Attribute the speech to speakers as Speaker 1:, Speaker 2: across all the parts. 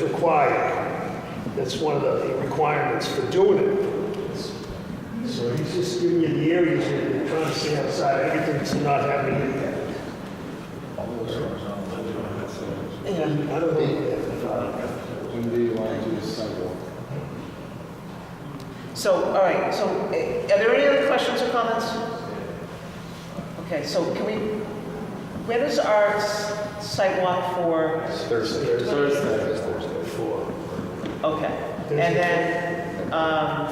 Speaker 1: required. That's one of the requirements for doing it. So he's just giving you the areas that you're trying to see outside, everything's not happening in there. And I don't uh, know.
Speaker 2: When do you want to do the sidewalk?
Speaker 3: So, all right, so eh, are there any other questions or comments? Okay, so can we, when is our s- site walk for,
Speaker 1: Thursday. Thursday. Four.
Speaker 3: okay. And then, um,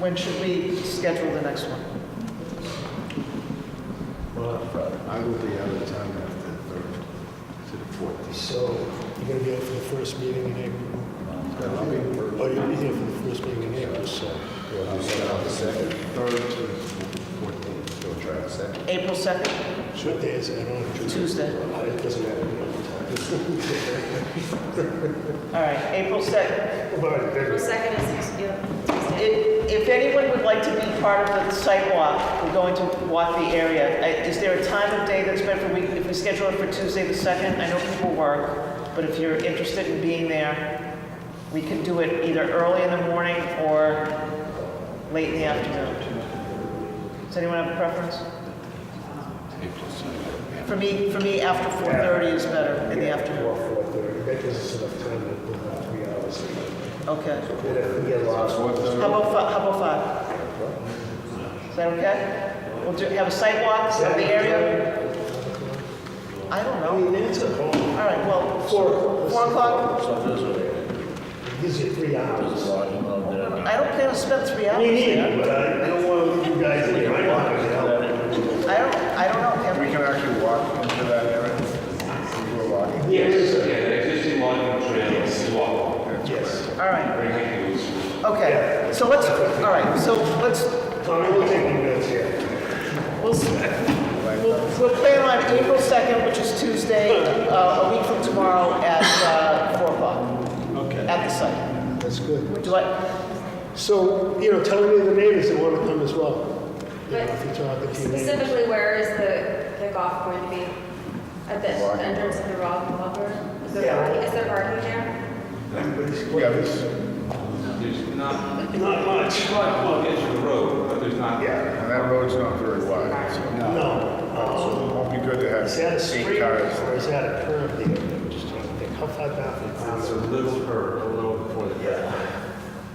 Speaker 3: when should we schedule the next one?
Speaker 2: I will be out of town after the third to the fourth.
Speaker 4: So you're going to be up for the first meeting in April?
Speaker 2: Then I'll be in Berlin.
Speaker 4: Oh, you'll be here for the first meeting in April, so.
Speaker 2: I'll be out the second, third to the fourteenth. Go try the second.
Speaker 3: April 2nd,
Speaker 4: What day is it? I don't know.
Speaker 3: Tuesday?
Speaker 1: Uh,
Speaker 4: It doesn't matter.
Speaker 3: All right, April 2nd.
Speaker 1: But
Speaker 5: April
Speaker 1: then,
Speaker 5: 2nd is, yeah.
Speaker 3: If if anyone would like to be part of the site walk, we're going to walk the area. Uh, Is there a time of day that's better? We- If we schedule it for Tuesday the 2nd, I know people work, but if you're interested in being there, we can do it either early in the morning or late in the afternoon. Does anyone have a preference? For me, for me, after 4:30 is better in the afternoon.
Speaker 1: four, four thirty, that gives us enough time to go about three hours.
Speaker 3: Okay.
Speaker 1: And if we get lost,
Speaker 2: Four thirty.
Speaker 3: How about, fi- how about five? Is that okay? We'll do, have a site walk of the area? I don't
Speaker 1: I
Speaker 3: know.
Speaker 1: mean, that's a
Speaker 3: All
Speaker 1: home,
Speaker 3: right, well,
Speaker 1: Four.
Speaker 3: four, four o'clock?
Speaker 1: it gives you three hours.
Speaker 3: I don't plan to spend three hours
Speaker 1: Me
Speaker 3: there.
Speaker 1: neither, but eh? I I don't want you guys to, I'm not gonna help.
Speaker 3: I don't, I don't know.
Speaker 2: We
Speaker 3: Kevin.
Speaker 2: can actually walk into that area. We were walking.
Speaker 1: Yes,
Speaker 6: Yeah, the existing logging trail is walkable.
Speaker 1: yes.
Speaker 3: All right,
Speaker 6: Very handy.
Speaker 3: okay. So let's, all right, so let's,
Speaker 1: Tommy, we'll take you guys here.
Speaker 3: we'll, s- we'll, we'll plan on April 2nd, which is Tuesday, uh, a week from tomorrow at uh, four o'clock. Okay. At the site.
Speaker 4: That's good.
Speaker 3: Do I,
Speaker 4: So, you know, tell me the neighbors that want to come as well. You know,
Speaker 5: But
Speaker 4: If you talk to your neighbors.
Speaker 5: Specifically, where is the, the golf going to be? At the
Speaker 2: Walking.
Speaker 5: entrance of the rock Walker? Is there
Speaker 1: Yeah.
Speaker 5: parking, is there parking there?
Speaker 2: Yeah, this,
Speaker 6: There's not,
Speaker 1: Not much.
Speaker 6: well, well, the edge of the road, but there's not.
Speaker 1: Yeah,
Speaker 2: and that road's not very wide, so.
Speaker 1: no. Uh,
Speaker 2: It won't be good to have
Speaker 1: Is that a street
Speaker 2: eight
Speaker 1: or
Speaker 2: cars.
Speaker 1: is that a curb there? I'm just trying to think, how far back?
Speaker 6: It's a little curve, a little before the.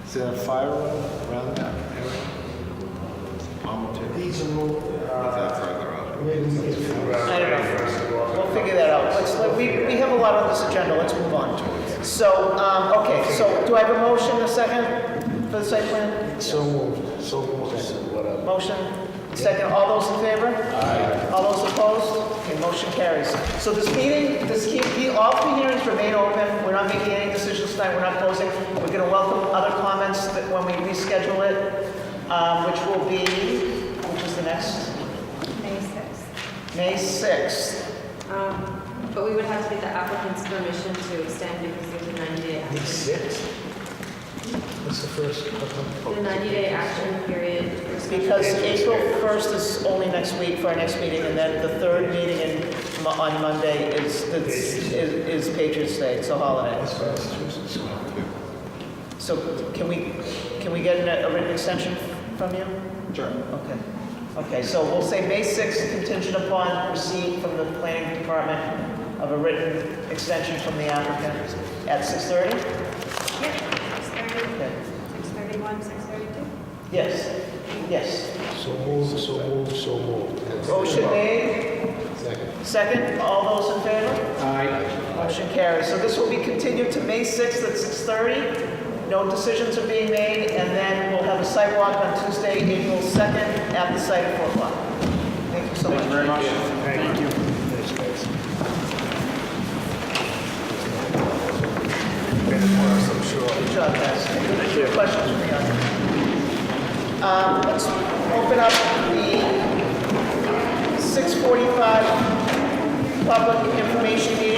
Speaker 2: Is there a fire around that area?
Speaker 1: These are all, uh,
Speaker 2: further up?
Speaker 1: maybe we can figure out.
Speaker 3: I don't know.
Speaker 1: First walk.
Speaker 3: We'll figure that out. Let's, let- we, we have a lot on this agenda, let's move on. So, um, okay, so do I have a motion, a second, for the site plan?
Speaker 4: So moved, so moved. Whatever.
Speaker 3: Motion, second, all those in favor? Aye. All those opposed? Okay, motion carries. So this meeting, this, he- he- all three hearings remain open, we're not making any decisions tonight, we're not closing. We're gonna welcome other comments that, when we reschedule it, um, which will be, which is the next,
Speaker 5: May 6th.
Speaker 3: May 6th.
Speaker 5: Um, But we would have to get the applicant's permission to extend because there's a 90-day
Speaker 1: These
Speaker 5: action.
Speaker 1: six? What's the first?
Speaker 5: The 90-day action period.
Speaker 3: Because April 1st is only next week for our next meeting, and then the third meeting in, Mo- on Monday is, is, is Patriots Day, it's a holiday. So can we, can we get a a written extension from you? Sure. Okay. Okay, so we'll say May 6th contingent upon receipt from the planning department of a written extension from the applicant at 6:30?
Speaker 5: Yeah, 6:30,
Speaker 3: Okay.
Speaker 5: 6:31, 6:32.
Speaker 3: Yes, yes.
Speaker 4: So moved, so moved, so moved.
Speaker 1: Oh,
Speaker 3: Motion made. Second. Second, all those in favor? Aye. Motion carries. So this will be continued to May 6th at 6:30. No decisions are being made, and then we'll have a site walk on Tuesday, April 2nd, at the site at 4 o'clock. Thank you so much.
Speaker 1: Thank you. Thanks, guys.
Speaker 3: Good job, uh, guys. Any Questions from the audience? Um, Let's open up the 6:45 public information meeting.